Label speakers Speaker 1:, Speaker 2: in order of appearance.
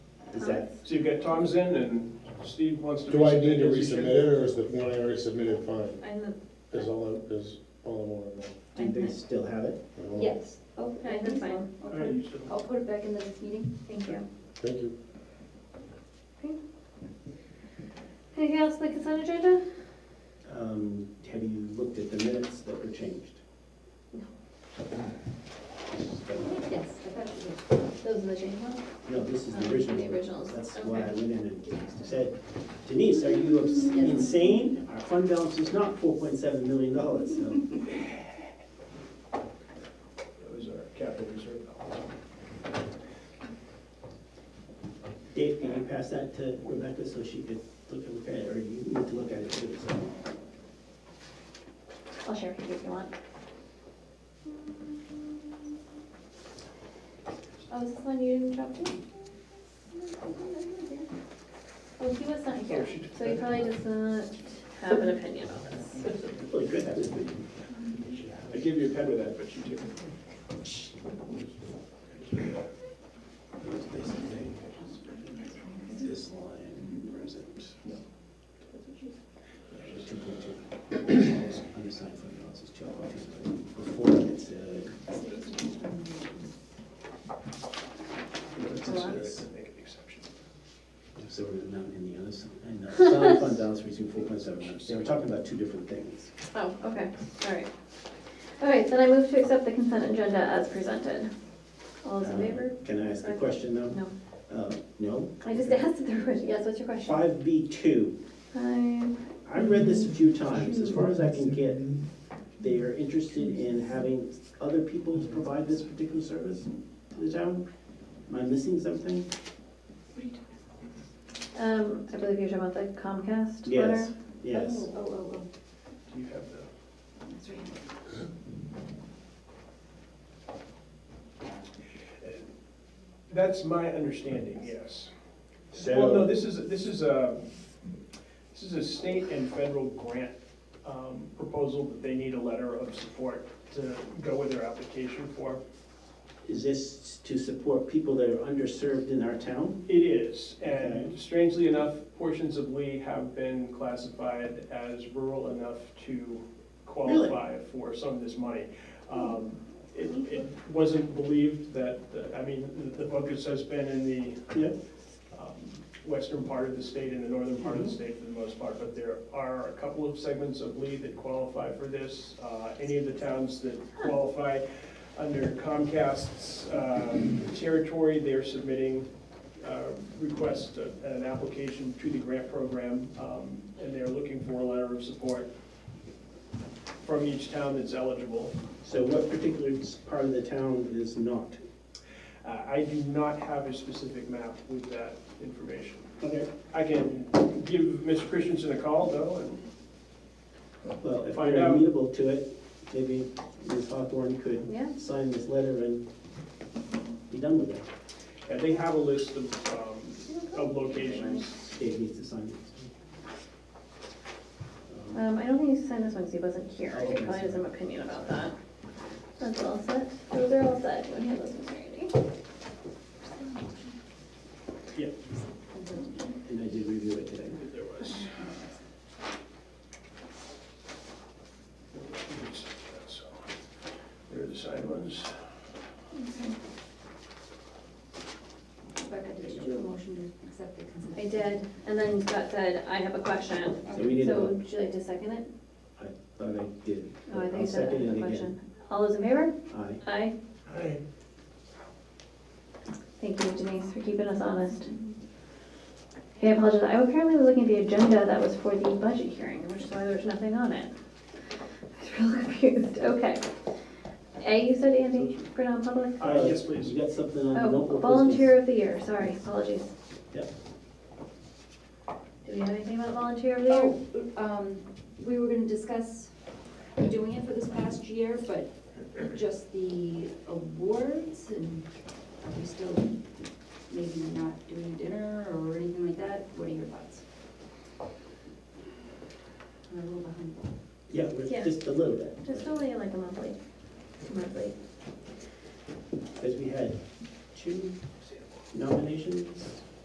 Speaker 1: So you've got Tom's in and Steve wants to.
Speaker 2: Do I need to
Speaker 1: his
Speaker 2: resubmit
Speaker 1: agenda.
Speaker 2: it, or is the one I already submitted fine?
Speaker 3: And
Speaker 2: Is all, I- is all I want to
Speaker 4: Do they still have it?
Speaker 2: know?
Speaker 5: Yes.
Speaker 3: the, okay, Oh, that's fine.
Speaker 1: All right, you should-
Speaker 5: I'll put it back in the next meeting.
Speaker 3: Thank you.
Speaker 2: Thank you.
Speaker 3: Anything else on the consent agenda?
Speaker 4: Um, Have you looked at the minutes that were changed?
Speaker 5: No.
Speaker 4: So,
Speaker 5: Yes, I thought you did. Those are the change ones?
Speaker 4: No, this is
Speaker 5: Um,
Speaker 4: the original.
Speaker 5: the originals,
Speaker 4: That's why I
Speaker 5: okay.
Speaker 4: went in and said, Denise, are you obs-
Speaker 5: Yes.
Speaker 4: insane? Our fund balance is not four point seven million dollars, so.
Speaker 6: That was our oh, capital reserve balance.
Speaker 4: Dave, can you pass that to Rebecca so she could look and look at it, or you need to look at it too, so.
Speaker 5: I'll share with you if you want.
Speaker 3: Oh, is this one you didn't drop to? Oh, he was not here, so he probably does not have an opinion on this.
Speaker 4: Really good, that was
Speaker 6: I gave you a pen with that, but you didn't.
Speaker 4: This line present. Yeah, Two point two. Undersigned fund balance is two point two. Before it uh, said.
Speaker 6: Make an exception.
Speaker 4: So we're not in the other side. And the solid fund balance reaching four point seven nine. So we're talking about two different things.
Speaker 3: Oh, okay, all right. All right, then I move to accept the consent agenda as presented. All those in
Speaker 4: Um,
Speaker 3: favor?
Speaker 4: Can I ask a question though?
Speaker 3: No,
Speaker 4: Uh, no?
Speaker 3: I just asked if there were, yes, what's your question?
Speaker 4: Five B two.
Speaker 3: Five.
Speaker 4: I've read this a few times, as far as I can get, they are interested in having other people to provide this particular service to the town? Am I missing something?
Speaker 3: Um, I believe you're talking about the Comcast letter?
Speaker 4: Yes, yes.
Speaker 5: Oh, oh, oh,
Speaker 6: Do you have the?
Speaker 5: oh, that's right.
Speaker 6: That's my understanding, yes.
Speaker 4: So-
Speaker 6: Well, no, this is, this is a, this is a state and federal grant um, proposal that they need a letter of support to go with their application for.
Speaker 4: Is this to support people that are underserved in our town?
Speaker 6: It is, and
Speaker 4: Okay.
Speaker 6: strangely enough, portions of Lee have been classified as rural enough to qualify for some of this money. Um, It, it wasn't believed that, I mean, the- the focus has been in the
Speaker 4: Yeah.
Speaker 6: um, western part of the state and the northern part of the state for the most part, but there are a couple of segments of Lee that qualify for this. Uh, Any of the towns that qualify under Comcast's um, territory, they're submitting uh, request, uh, an application to the grant program, um, and they're looking for a letter of support from each town that's eligible.
Speaker 4: So what particular part of the town is not?
Speaker 6: Uh, I do not have a specific map with that information.
Speaker 4: Okay.
Speaker 6: I can give Mr. Christensen a call though, and
Speaker 4: Well, if
Speaker 6: Find
Speaker 4: you're
Speaker 6: out.
Speaker 4: amenable to it, maybe Ms. Hawthorne could
Speaker 3: Yeah,
Speaker 4: sign this letter and be done with it.
Speaker 6: yeah, they have a list of, um, of locations.
Speaker 4: Dave needs to sign it.
Speaker 3: um, I don't think he signed this one because he wasn't here,
Speaker 4: Oh,
Speaker 3: he
Speaker 4: okay,
Speaker 3: probably has
Speaker 4: sorry.
Speaker 3: an opinion about that. That's all set, those are all set, you want to hand those ones to Randy?
Speaker 4: And I did review it today.
Speaker 6: that There was. So, There are the side ones.
Speaker 5: Rebecca, did you do a motion to accept the consent?
Speaker 3: I did, and then Scott said, I have a question,
Speaker 4: So we need
Speaker 3: so
Speaker 4: to,
Speaker 3: would you like to second it?
Speaker 4: I thought I did.
Speaker 3: Oh, I
Speaker 4: I'll
Speaker 3: think so, I
Speaker 4: second
Speaker 3: have
Speaker 4: it again.
Speaker 3: a question. All those in favor?
Speaker 4: Aye.
Speaker 3: Aye.
Speaker 6: Hi.
Speaker 3: Thank you Denise for keeping us honest. Hey, I apologize, I apparently was looking at the agenda that was for the budget hearing, which is why there's nothing on it. I was real confused, okay. A, you said Andy, for non-public?
Speaker 6: Uh, yes, please.
Speaker 4: You got something on the
Speaker 3: Oh,
Speaker 4: notebook?
Speaker 3: volunteer of the year, sorry, apologies.
Speaker 4: Yep.
Speaker 3: Do we have anything about volunteer of the year?
Speaker 5: Oh, um, we were gonna discuss doing it for this past year, but just the awards and are we still maybe not doing dinner or anything like that? What are your thoughts? I'm a little behind.
Speaker 4: Yeah, we're
Speaker 3: Yeah.
Speaker 4: just a little bit,
Speaker 3: Just only like a monthly, monthly.
Speaker 4: because we had two nominations.